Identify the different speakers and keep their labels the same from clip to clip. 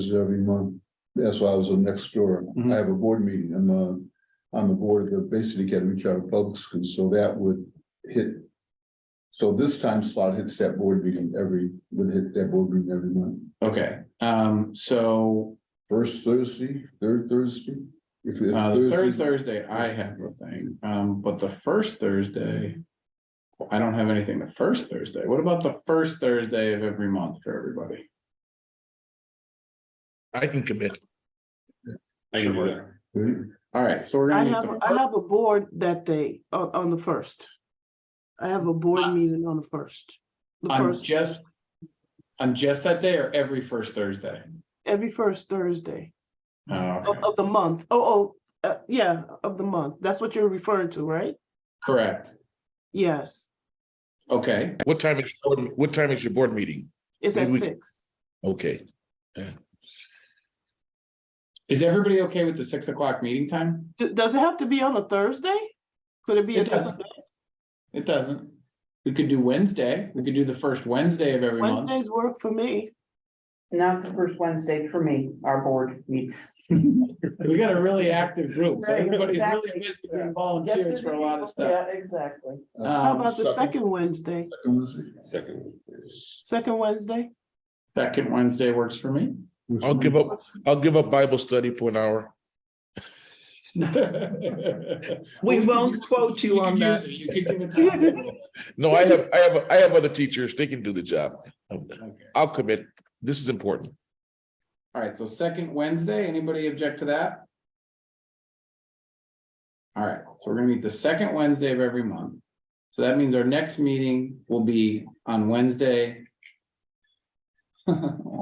Speaker 1: is every month. That's why I was on next door.
Speaker 2: Mhm.
Speaker 1: I have a board meeting. I'm uh, on the board of the Basic Academy Charter Public Schools, so that would hit. So this time slot hits that board meeting every, would hit that board meeting every month.
Speaker 2: Okay, um, so,
Speaker 1: First Thursday, third Thursday. If it's
Speaker 2: uh, the third
Speaker 1: Thursday,
Speaker 2: Thursday, I have a thing, um, but the first Thursday. I don't have anything the first Thursday. What about the first Thursday of every month for everybody?
Speaker 3: I can commit.
Speaker 2: I
Speaker 3: can do
Speaker 1: third-
Speaker 2: All right, so we're
Speaker 4: I
Speaker 2: gonna.
Speaker 4: have,
Speaker 2: make the
Speaker 4: I have a board that day, on, on the first. I have a
Speaker 2: Ah.
Speaker 4: board meeting on the first. The
Speaker 2: On
Speaker 4: first,
Speaker 2: just, on just that day or every first Thursday?
Speaker 4: every first Thursday
Speaker 2: Oh,
Speaker 4: of,
Speaker 2: okay.
Speaker 4: of the month. Oh, oh, uh, yeah, of the month. That's what you're referring to, right?
Speaker 2: correct.
Speaker 4: Yes,
Speaker 2: Okay,
Speaker 3: What time is, what time is your board meeting?
Speaker 4: it's at
Speaker 3: Maybe we-
Speaker 4: six.
Speaker 3: Okay,
Speaker 2: is everybody okay with the six o'clock meeting time?
Speaker 4: D- Does it have to be on a Thursday? Could it be a
Speaker 2: It
Speaker 4: different
Speaker 2: doesn't.
Speaker 4: day?
Speaker 2: It doesn't. We could do Wednesday. We could do the first Wednesday of every month.
Speaker 4: Wednesdays work for me.
Speaker 5: Not the first Wednesday for me, our board meets.
Speaker 2: We got a really active group, so
Speaker 5: Right,
Speaker 2: everybody's really
Speaker 5: exactly.
Speaker 2: busy and volunteers for a lot of stuff.
Speaker 5: Yeah, exactly.
Speaker 1: uh,
Speaker 2: Uh,
Speaker 4: How
Speaker 2: Um,
Speaker 4: about the
Speaker 1: second-
Speaker 4: second Wednesday?
Speaker 1: second Wednesday.
Speaker 4: Second Wednesday?
Speaker 2: Second Wednesday works for me.
Speaker 3: I'll give up, I'll give up Bible study for an hour.
Speaker 6: We
Speaker 2: Well, could
Speaker 6: won't
Speaker 2: use-
Speaker 6: quote you on
Speaker 2: could
Speaker 6: that.
Speaker 2: use it. You could give it time.
Speaker 3: No, I have, I have, I have other teachers. They can do the job.
Speaker 2: Okay.
Speaker 3: I'll commit. This is important.
Speaker 2: All right, so second Wednesday, anybody object to that? All right, so we're gonna meet the second Wednesday of every month. So that means our next meeting will be on Wednesday.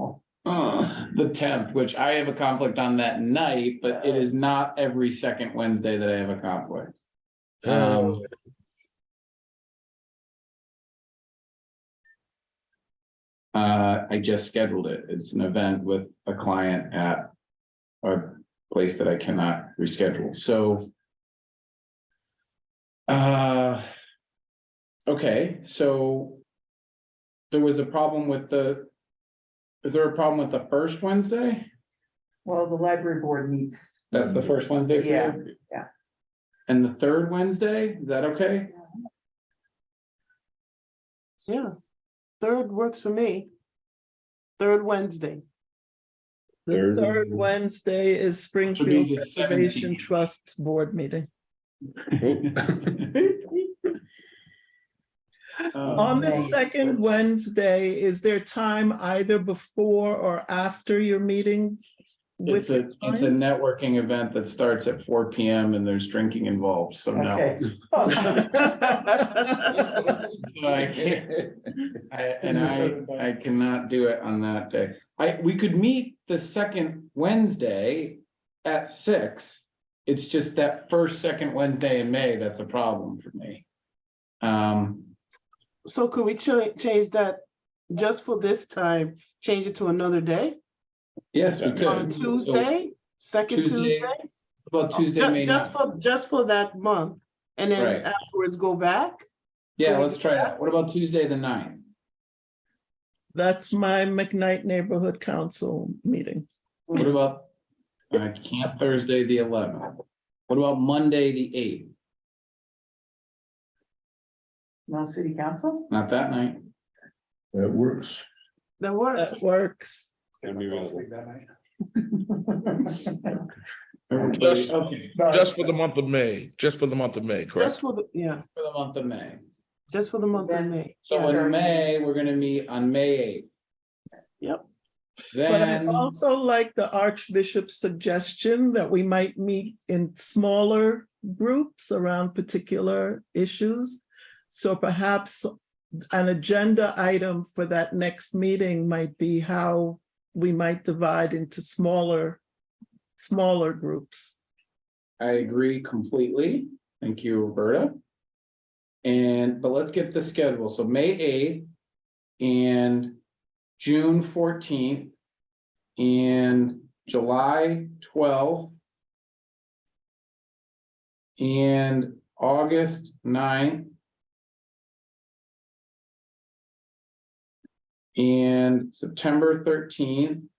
Speaker 2: The tenth, which I have a conflict on that night, but it is not every second Wednesday that I have a conflict. Um, Uh, I just scheduled it. It's an event with a client at a place that I cannot reschedule, so. Uh. Okay, so. There was a problem with the. Is there a problem with the first Wednesday?
Speaker 5: Well, the library board meets.
Speaker 2: That's the first Wednesday? for you?
Speaker 5: Yeah, yeah.
Speaker 2: And the third Wednesday, is that okay?
Speaker 4: Yeah. Third works for me. Third Wednesday.
Speaker 6: The third Wednesday is Springfield
Speaker 2: the
Speaker 6: Preservation
Speaker 2: 17th.
Speaker 6: Trust Board meeting.
Speaker 2: Oh,
Speaker 6: On the
Speaker 5: nice.
Speaker 6: second Wednesday, is there time either before or after your meeting?
Speaker 2: It's
Speaker 6: with
Speaker 2: a, it's a
Speaker 6: time?
Speaker 2: networking event that starts at four P M and there's drinking involved, so no.
Speaker 5: Okay.
Speaker 2: So I can't, I, and I, I cannot do it on that day. I, we could meet the second Wednesday at six. It's just that first, second Wednesday in May, that's a problem for me. Um,
Speaker 4: So could we cha- change that just for this time, change it to another day,
Speaker 2: yes, we could.
Speaker 4: on
Speaker 2: So
Speaker 4: Tuesday, second
Speaker 2: Tuesday,
Speaker 4: Tuesday?
Speaker 2: About Tuesday, May
Speaker 4: Ju- Just
Speaker 2: ninth.
Speaker 4: for, just for that month, and
Speaker 2: Right.
Speaker 4: then afterwards go back?
Speaker 2: Yeah, let's try that. What about Tuesday, the ninth?
Speaker 6: That's my McKnight Neighborhood Council meeting.
Speaker 2: What about, I can't Thursday, the eleventh. What about Monday, the eighth?
Speaker 5: No city council?
Speaker 2: Not that night.
Speaker 1: That works.
Speaker 4: That works.
Speaker 6: That works.
Speaker 2: Everybody, okay,
Speaker 3: Just for the month of May, just for the month of May,
Speaker 4: Just
Speaker 3: correct?
Speaker 4: for the, yeah,
Speaker 2: for the month of May.
Speaker 4: just for the month of
Speaker 5: Then-
Speaker 4: May.
Speaker 2: So
Speaker 5: Yeah.
Speaker 2: in May, we're gonna meet on May eighth.
Speaker 4: Yep.
Speaker 6: But I
Speaker 2: Then,
Speaker 6: also like the Archbishop's suggestion that we might meet in smaller groups around particular issues. So perhaps an agenda item for that next meeting might be how we might divide into smaller, smaller groups.
Speaker 2: I agree completely. Thank you, Roberta. And, but let's get the schedule. So May eighth and June fourteenth and July twelfth and August 9th and September thirteenth